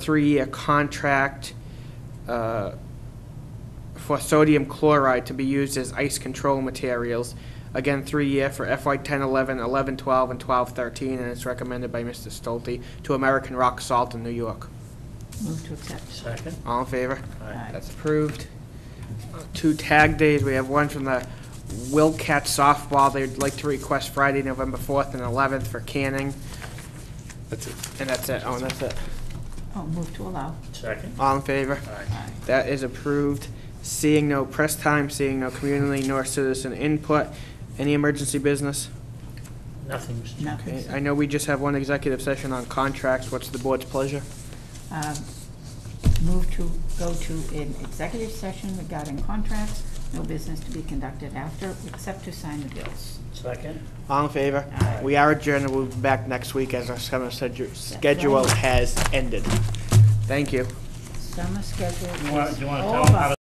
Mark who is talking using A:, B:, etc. A: three-year contract uh, for sodium chloride to be used as ice control materials. Again, three-year for FY 10, 11, 11, 12, and 12, 13, and it's recommended by Mr. Stolte to American Rock Salt in New York.
B: Move to accept.
C: Second?
A: All in favor?
B: Aye.
A: That's approved. Uh, Two tag days, we have one from the Wilcat softball, they'd like to request Friday, November 4th and 11th for canning,
D: That's it.
A: and that's it, oh, and that's it.
B: Oh, move to allow.
C: Second?
A: All in favor?
C: Aye.
A: That is approved. Seeing no press time, seeing no community nor citizen input, any emergency business?
C: Nothing, Mr. Chairman.
B: Nothing.
A: Okay, I know we just have one executive session on contracts. What's the board's pleasure?
B: Um, Move to, go to an executive session regarding contracts, no business to be conducted after, except to sign the bills.
C: Second?
A: All in favor?
B: Aye.
A: We are adjourned, and we'll be back next week as our summer sedu- schedule has ended. Thank you.
B: Summer schedule
C: You wanna-
B: is
C: you wanna tell 'em how
B: over.
C: to